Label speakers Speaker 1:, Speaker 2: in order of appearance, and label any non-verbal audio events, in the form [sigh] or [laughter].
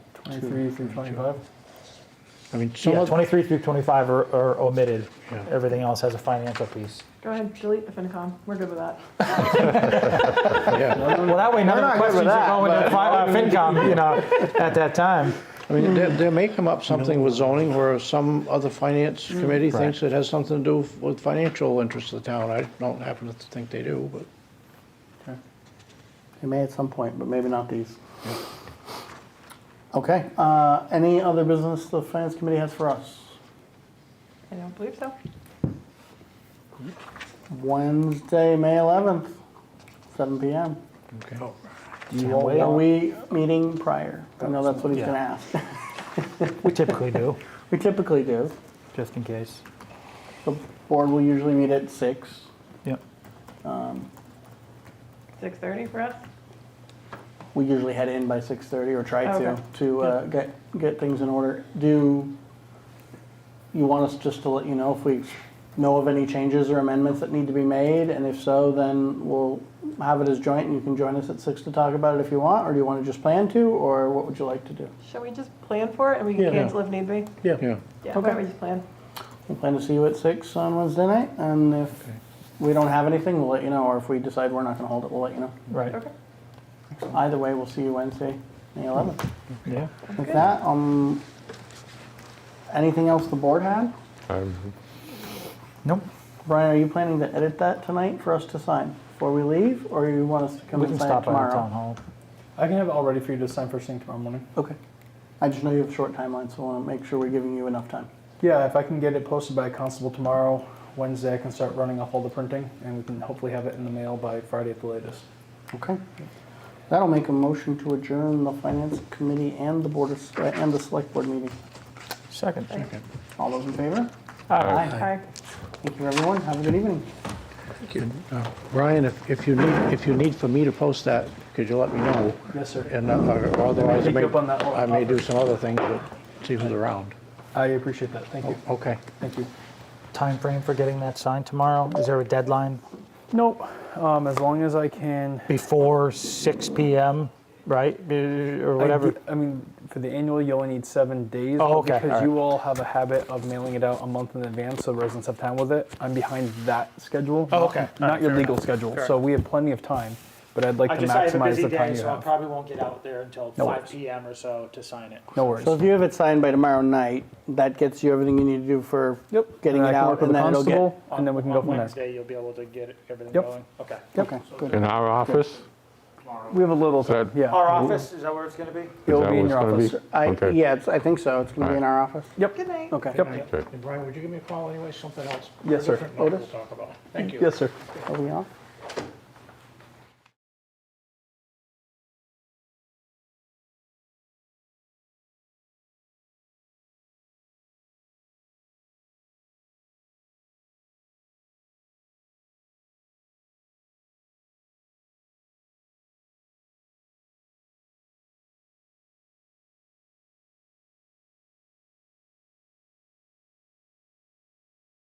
Speaker 1: 23 through 25?
Speaker 2: I mean, some
Speaker 1: Yeah,
Speaker 2: of,
Speaker 1: 23 through 25 are are omitted.
Speaker 2: Yeah.
Speaker 1: Everything else has a financial piece.
Speaker 3: Go ahead, delete the FinCom. We're good with that.
Speaker 2: yeah.
Speaker 1: Well, that way, none of the
Speaker 4: not good
Speaker 1: questions
Speaker 4: with
Speaker 1: are
Speaker 4: that,
Speaker 1: going to
Speaker 4: but-
Speaker 1: fi- uh, FinCom, you know,
Speaker 4: [laughs]
Speaker 1: at that time.
Speaker 2: I mean, there, there may come up something with zoning where some other finance
Speaker 5: Mm.
Speaker 2: committee thinks it has something to do with financial interests of the town. I don't happen to think they do, but.
Speaker 4: They may at some point, but maybe not these. Okay, uh, any other business the finance committee has for us?
Speaker 3: I don't believe so.
Speaker 4: Wednesday, May eleventh, seven PM.
Speaker 2: Okay.
Speaker 1: Can't
Speaker 4: Are
Speaker 1: wait.
Speaker 4: we meeting prior? I know that's what he's
Speaker 1: Yeah.
Speaker 4: gonna ask. [laughs]
Speaker 1: We typically do,
Speaker 4: We typically do.
Speaker 1: just in case.
Speaker 4: The board will usually meet at six.
Speaker 1: Yep.
Speaker 3: 6:30 for us?
Speaker 4: We usually head in by six thirty or try to,
Speaker 3: Okay.
Speaker 4: to uh, get, get things in order. Do you want us just to let you know if we know of any changes or amendments that need to be made? And if so, then we'll have it as joint and you can join us at six to talk about it if you want, or do you want to just plan to, or what would you like to do?
Speaker 3: Shall we just plan for it and we can
Speaker 2: Yeah.
Speaker 3: cancel if need be?
Speaker 2: Yeah.
Speaker 3: Yeah, why don't we just plan?
Speaker 4: We plan to see you at six on Wednesday night, and if we don't have anything, we'll let you know, or if we decide we're not gonna hold it, we'll let you know.
Speaker 1: Right,
Speaker 3: Okay.
Speaker 4: Either way, we'll see you Wednesday, May eleventh.
Speaker 1: yeah.
Speaker 4: With
Speaker 3: Okay.
Speaker 4: that, um, anything else the board had?
Speaker 1: Nope,
Speaker 4: Brian, are you planning to edit that tonight for us to sign before we leave, or you want us to come
Speaker 1: we
Speaker 4: and
Speaker 1: can
Speaker 4: sign it
Speaker 1: stop by the
Speaker 4: tomorrow?
Speaker 1: town hall.
Speaker 5: I can have it all ready for you to sign first thing tomorrow morning.
Speaker 4: Okay. I just know you have a short timeline, so I want to make sure we're giving you enough time.
Speaker 5: Yeah, if I can get it posted by constable tomorrow, Wednesday, I can start running off all the printing, and we can hopefully have it in the mail by Friday at the latest.
Speaker 4: Okay. That'll make a motion to adjourn the finance committee and the board of, Sele- and the select board meeting.
Speaker 1: Second.
Speaker 4: All those in favor?
Speaker 1: Aye.
Speaker 3: Aye.
Speaker 4: Thank you, everyone. Have a good evening.
Speaker 2: Uh, Brian, if, if you need, if you need for me to post that, could you let me know?
Speaker 5: Yes, sir.
Speaker 2: And, uh, or or otherwise, I
Speaker 5: Pick
Speaker 2: may,
Speaker 5: you up on that one.
Speaker 2: I may do some other things, but see who's around.
Speaker 5: I appreciate that. Thank you.
Speaker 2: Okay.
Speaker 5: Thank you.
Speaker 1: Time frame for getting that signed tomorrow? Is there a deadline
Speaker 5: Nope. Um, as long as I can.
Speaker 1: before 6 PM, right? Uh, Or whatever?
Speaker 5: I, mean, for the annual, you only need seven days.
Speaker 1: Oh,
Speaker 5: but
Speaker 1: okay,
Speaker 5: Because
Speaker 1: all
Speaker 5: you all have a habit of mailing it out a month in advance, so residents have time with it. I'm behind that schedule.
Speaker 1: Oh,
Speaker 5: not-
Speaker 1: okay.
Speaker 5: Not, your legal schedule. So we have plenty of time, but I'd like
Speaker 6: I
Speaker 5: to
Speaker 6: just, I have a
Speaker 5: maximize
Speaker 6: busy
Speaker 5: the time
Speaker 6: day,
Speaker 5: you
Speaker 6: so I
Speaker 5: have.
Speaker 6: probably won't get out there until
Speaker 5: No
Speaker 6: five
Speaker 5: worries.
Speaker 6: PM or so to sign it.
Speaker 5: No worries.
Speaker 4: So if you have it signed by tomorrow night, that gets you everything you need to do for
Speaker 5: Yep.
Speaker 4: getting
Speaker 5: and
Speaker 4: it
Speaker 5: I can
Speaker 4: out,
Speaker 5: work with
Speaker 4: and
Speaker 5: the
Speaker 4: then it'll get.
Speaker 5: constable, And then we can
Speaker 6: On-
Speaker 5: go
Speaker 6: on
Speaker 5: from there.
Speaker 6: Wednesday, you'll be able to get everything
Speaker 5: Yep.
Speaker 6: going? Okay.
Speaker 4: Okay, good.
Speaker 7: In our office?
Speaker 5: We have a little,
Speaker 7: That-
Speaker 5: yeah.
Speaker 6: Our office, is that where it's gonna be?
Speaker 5: It'll
Speaker 7: that
Speaker 5: be in
Speaker 7: what
Speaker 5: your
Speaker 7: it's gonna be?
Speaker 5: office.
Speaker 4: I,
Speaker 7: Okay.
Speaker 4: yeah, it's, I think so. It's gonna be in our office.
Speaker 3: Good night.
Speaker 4: Okay.
Speaker 5: Yep,
Speaker 7: Okay.
Speaker 2: And Brian, would you give me a call anyway, something else?
Speaker 5: Yes, sir.
Speaker 2: Different night we'll
Speaker 4: Otis?
Speaker 2: talk about. Thank you.
Speaker 5: yes, sir.
Speaker 4: Are we off?